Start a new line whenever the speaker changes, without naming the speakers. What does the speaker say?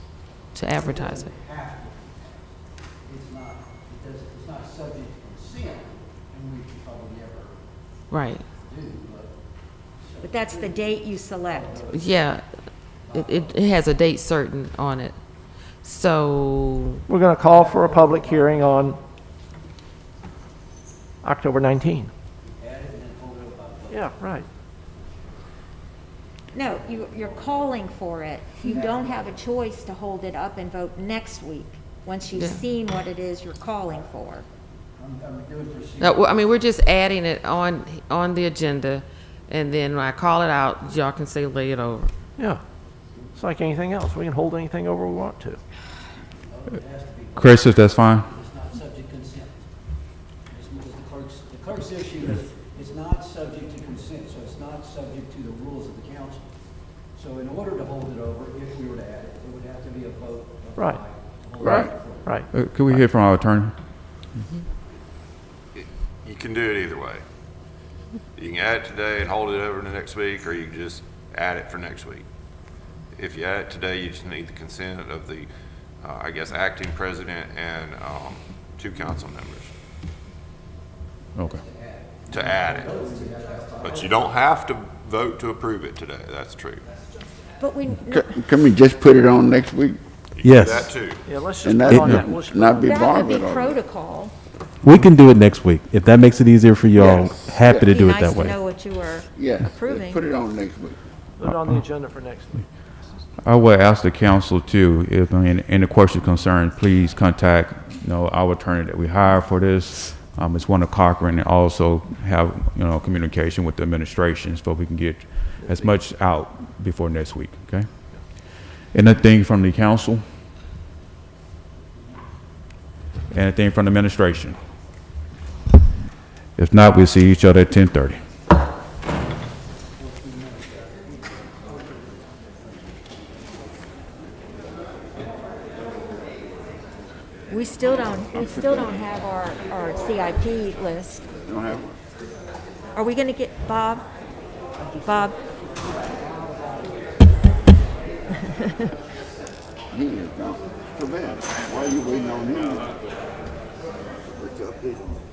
to advertise it.
have to. It's not, it does, it's not subject to consent, and we should probably never
Right.
do, but. so-
But that's the date you select.
Yeah, it, it, it has a date certain on it. So,
We're going to call for a public hearing on October 19. Yeah, right.
No, you, you're calling for it. You don't have a choice to hold it up and vote next week, once you've
Yeah.
seen what it is you're calling for.
I'm, I'm doing proceed.
no, well, I mean, we're just adding it on, on the agenda, and then when I call it out, y'all can say lay it over.
Yeah. It's like anything else. We can hold anything over we want to.
Chris, if that's fine.
it's not subject to consent. It's, it's the clerk's, the clerk's issue is, it's not subject to consent, so it's not subject to the rules of the council. So in order to hold it over, if we were to add it, it would have to be a vote of
Right.
five to hold it
Right,
over.
right.
Uh, Could we hear from our attorney?
You can do it either way. You can add it today and hold it over to next week, or you can just add it for next week. If you add it today, you just need the consent of the, uh, I guess, acting president and um, two council members
Okay.
to add it. But you don't have to vote to approve it today, that's true.
But we,
Can can we just put it on next week?
You can do
Yes.
That too.
Yeah, let's just
And
put
that,
it on that. We'll just put it
not
on
be
that.
that would be
bothered on it?
protocol.
We can do it next week. If that makes it easier for y'all,
Yes.
happy to
It'd be
do it
nice
that
to know
way.
what you were
Yeah,
approving.
put it on next week.
Put it on the agenda for next week.
I would ask the council too, if, I mean, any question concern, please contact, you know, our attorney that we hire for this. Um, it's one of Cochran and also have, you know, communication with the administration so we can get as much out before next week, okay? Anything from the council? Anything from the administration? If not, we'll see each other at ten thirty.
We still don't, we still don't have our, our CIP list.
Don't have one.
Are we gonna get, Bob? Bob,
He is gone. Too bad. Why you waiting on him? What's up, dude?